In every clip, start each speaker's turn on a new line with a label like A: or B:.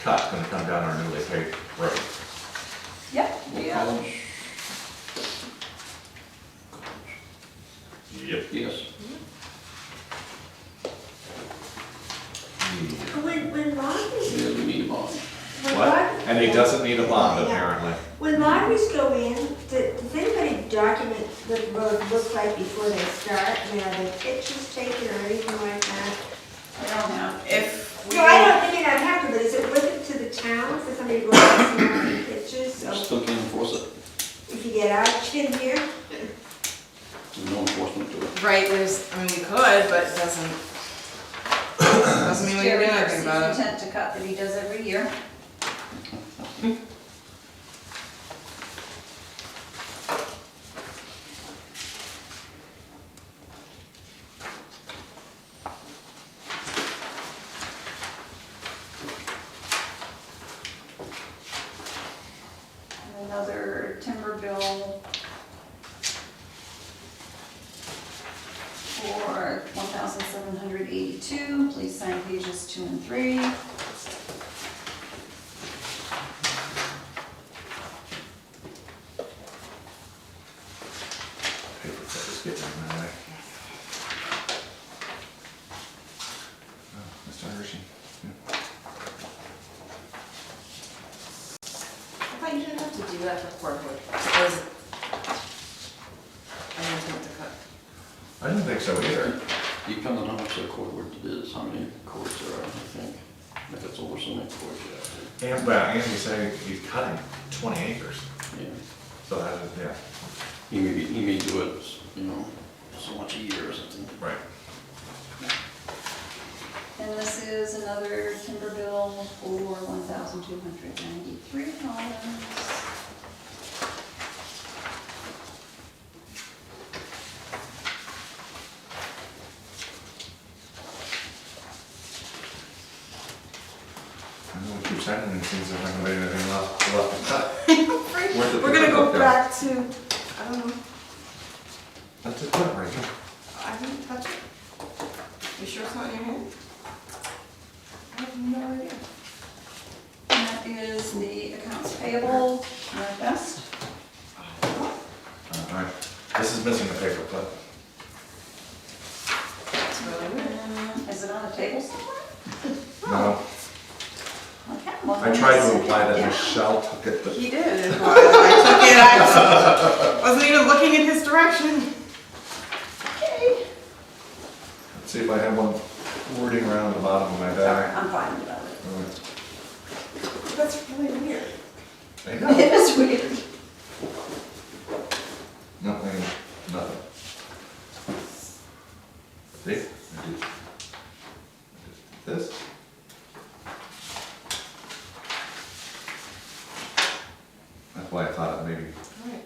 A: stop's gonna come down our newly paved road.
B: Yep, yeah.
A: Yep.
C: Yes.
D: When, when
C: Yeah,
D: lotteries,
C: we need a bond.
D: when
A: Hmm, What?
D: lotteries.
A: And he doesn't need a bond apparently.
D: When lotteries go in, d- does anybody document what the road looks like before they start? I mean, are there pictures taken or anything like that?
B: I don't know, if we.
D: No, I don't think it would happen, but is it worth it to the town for somebody to go out and see the pictures?
C: We
D: So
C: Still can't enforce it.
D: if you get out, you can hear.
C: There's no enforcement to it.
E: Right, there's, I mean, we could, but it doesn't, doesn't mean we can do
B: Jerry
E: anything about
B: Darcy's
E: it.
B: intent to cut that he does every year. And Another timber bill for one thousand seven hundred eighty-two, please sign pages two and three.
A: Paper cut is getting in my way. Oh, Mr. Hershey.
E: I thought you didn't have to do that for cordwood. Was- I didn't think to cut.
A: I didn't think so either.
C: Depending on how much the court work it is, how many courts there are, I think. If it's over so many courts, you have
A: And, well, and he's saying he's cutting twenty acres,
C: to, yeah.
A: so that is, yeah,
C: He may, be- he may do it, you know, er so much a year or something.
A: right.
B: And this is another timber bill for one thousand two hundred ninety-three dollars.
A: I know we keep sending and things, if anybody has anything left, left to cut. Worth it
E: We're gonna go
A: to-
E: back to, I don't know,
A: That's it, right here.
E: I didn't touch it. You sure it's not in your hand? I have no idea.
B: And that is the accounts payable, Northwest.
A: All right, this is missing the paper clip.
E: It's really weird.
B: Um, Is it on the table somewhere?
A: No,
B: Okay, well,
A: I tried to
B: let's-
A: imply that
B: yeah.
A: Michelle took it, but
E: He did. it was. I took it, I wasn't even looking in his direction.
B: Okay,
A: let's see if I have one wording around the bottom of my
B: sorry,
A: bag.
B: I'm fine without it.
A: All right.
E: That's really weird.
A: I know.
B: It is weird.
A: Nothing, nothing. See? I did- I did This? That's why I thought it maybe,
E: Alright.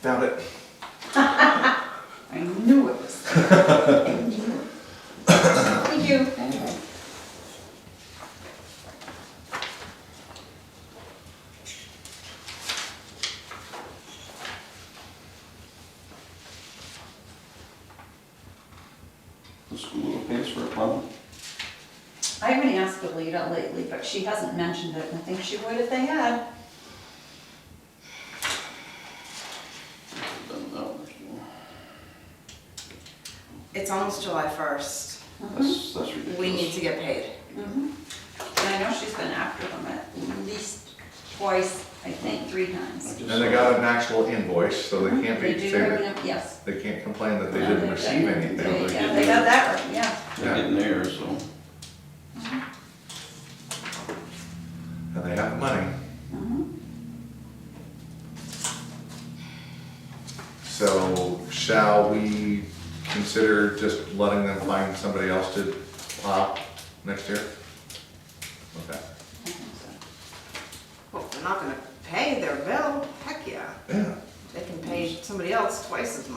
A: found it.
B: I knew it was. there. I knew it. Thank you.
C: The school pays for a pond.
B: I haven't asked Alita lately, but she hasn't mentioned it, and I think she would if they had.
C: Doesn't know,
E: Mm-hmm.
C: you
E: It's almost July first.
C: know. That's, that's ridiculous.
E: We need to get paid.
B: Mhm. And I know she's been after them at least twice, I think, three times.
A: And they got an actual invoice, so they can't be,
B: Mm-hmm. They do
A: say
B: have
A: that-
B: an- Yes.
A: they can't complain that they didn't receive anything.
C: they're
B: Yeah, they
C: getting-
B: got that right, yeah.
C: They're getting there, so.
A: And they have the money.
B: Mhm.
A: So shall we consider just letting them find somebody else to plow next year? Okay.
B: I think so.
E: Well, if they're not gonna pay their bill, heck yeah.
A: Yeah.
E: They can pay somebody else twice as